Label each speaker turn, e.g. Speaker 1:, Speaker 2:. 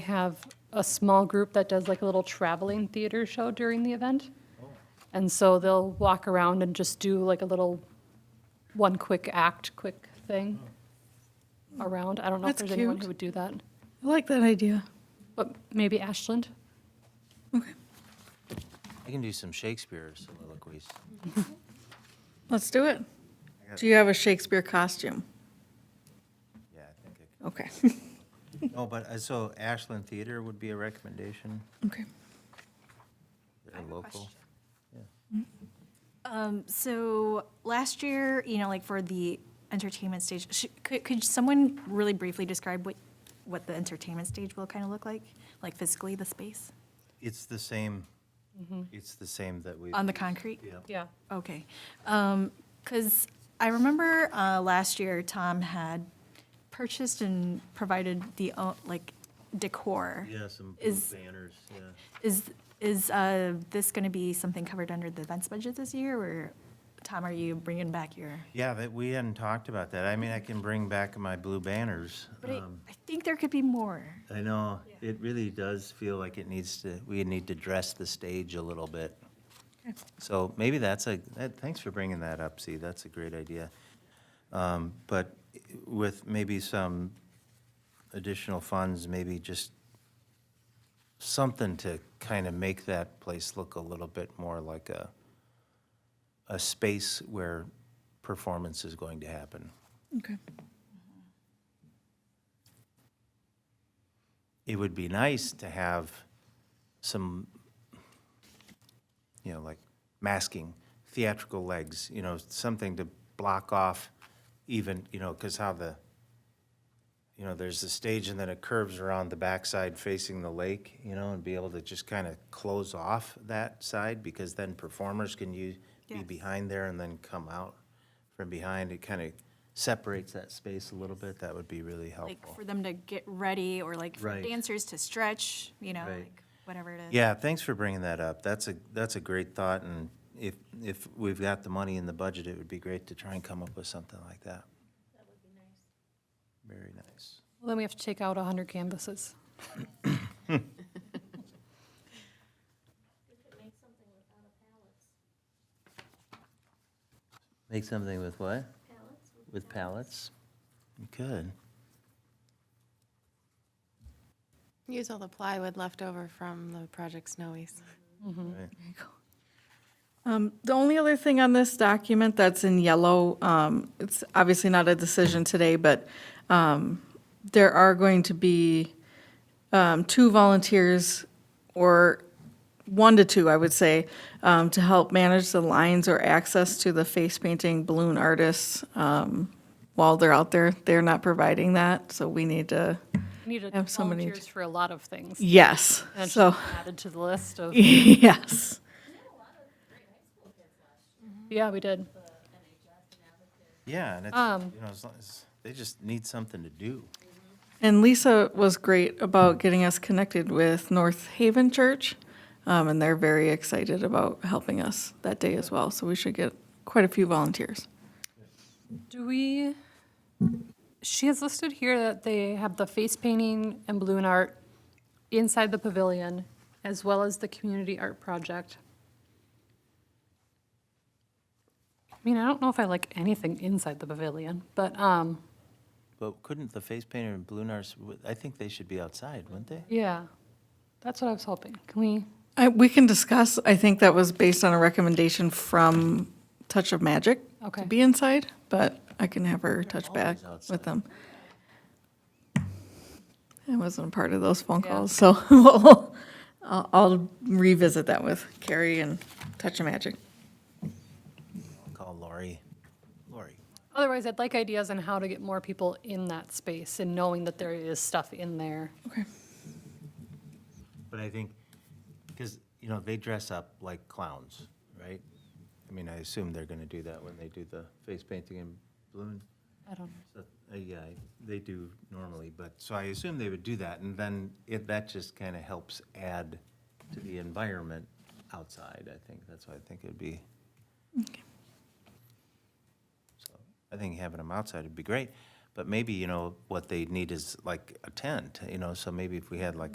Speaker 1: have a small group that does like a little traveling theater show during the event.
Speaker 2: Oh.
Speaker 1: And so they'll walk around and just do like a little, one quick act, quick thing around. I don't know if
Speaker 2: Oh. That's
Speaker 1: there's anyone
Speaker 2: cute.
Speaker 1: who would do that,
Speaker 2: I like that idea.
Speaker 1: but maybe Ashland?
Speaker 2: Okay,
Speaker 3: I can do some Shakespeare soliloquies.
Speaker 4: Mm-hmm.
Speaker 2: let's do it. Do you have a Shakespeare costume?
Speaker 3: Yeah, I think I
Speaker 2: Okay,
Speaker 3: could. No, but, uh, so Ashland Theater would be a recommendation,
Speaker 2: okay.
Speaker 3: they're local.
Speaker 4: So last year, you know, like for the entertainment stage, sh- could, could someone really briefly describe what, what the entertainment stage will kind of look like? Like physically, the space
Speaker 3: It's the same, it's the same that we,
Speaker 4: Mm-hmm. on the concrete?
Speaker 3: yeah.
Speaker 1: Yeah.
Speaker 4: Okay. Because I remember uh, last year, Tom had purchased and provided the, uh, like, decor.
Speaker 3: Yeah, some blue
Speaker 4: Is-
Speaker 3: banners, yeah.
Speaker 4: Is, is uh, this going to be something covered under the events budget this year? Or, Tom, are you bringing back your?
Speaker 3: Yeah, but we hadn't talked about that. I mean, I can bring back my blue banners.
Speaker 4: But I,
Speaker 3: um,
Speaker 4: I think there could be more.
Speaker 3: I know, it really does feel like it needs to, we need to dress the stage a little bit. So maybe that's a, that- thanks for bringing that up, See, that's a great idea. Um, But with maybe some additional funds, maybe just something to kind of make that place look a little bit more like a, a space where performance is going to happen.
Speaker 2: Okay.
Speaker 3: it would be nice to have some, you know, like masking, theatrical legs, you know, something to block off even, you know, because how the, you know, there's the stage and then it curves around the backside facing the lake, you know, and be able to just kind of close off that side because then performers can use, be
Speaker 4: Yes.
Speaker 3: behind there and then come out from behind. It kind of separates that space a little bit. That would be really helpful.
Speaker 4: Like for them to get ready or like for
Speaker 3: Right.
Speaker 4: dancers to stretch, you know,
Speaker 3: Right.
Speaker 4: like whatever it is.
Speaker 3: Yeah, thanks for bringing that up. That's a, that's a great thought, and if, if we've got the money in the budget, it would be great to try and come up with something like that. That would be nice. Very nice.
Speaker 1: Well, then we have to take out 100 canvases.
Speaker 3: Make something with what? With pallets. You could.
Speaker 5: Use all the plywood left over from the Project Snowies.
Speaker 3: Right.
Speaker 2: Um, The only other thing on this document that's in yellow, um, it's obviously not a decision today, but um, there are going to be um, two volunteers, or one to two, I would say, um, to help manage the lines or access to the face painting balloon artists um, while they're out there. They're not providing that, so we need to,
Speaker 1: We Need
Speaker 2: Have somebody
Speaker 1: volunteers for a lot of things.
Speaker 2: yes,
Speaker 1: And it's
Speaker 2: so,
Speaker 1: Added to the list of,
Speaker 2: yes.
Speaker 1: yeah, we did.
Speaker 3: Yeah, and it's, you know, as long as, they just need something to do.
Speaker 2: And Lisa was great about getting us connected with North Haven Church, um, and they're very excited about helping us that day as well. So we should get quite a few volunteers.
Speaker 1: Do we, she has listed here that they have the face painting and balloon art inside the pavilion, as well as the community art project. I mean, I don't know if I like anything inside the pavilion, but, um,
Speaker 3: But couldn't the face painter and balloon artists, w- I think they should be outside, wouldn't they?
Speaker 1: yeah, that's what I was hoping. Can we,
Speaker 2: I, we can discuss. I think that was based on a recommendation from Touch of Magic
Speaker 1: Okay.
Speaker 2: to be inside, but I can have her touch back
Speaker 3: always outside.
Speaker 2: with them. I wasn't a part of those phone
Speaker 1: Yeah.
Speaker 2: calls, so we'll, I'll, I'll revisit that with Carrie and Touch of Magic.
Speaker 3: Call Lori. Lori.
Speaker 1: otherwise, I'd like ideas on how to get more people in that space and knowing that there is stuff in there.
Speaker 2: Okay.
Speaker 3: But I think, because, you know, they dress up like clowns, right? I mean, I assume they're going to do that when they do the face painting and balloon.
Speaker 1: I don't know.
Speaker 3: So, uh, Yeah, they do normally, but, so I assume they would do that. And then it, that just kind of helps add to the environment outside, I think. That's why I think it'd be. So I think having them outside would be great. But maybe, you know, what they need is like a tent, you know, so maybe if we had like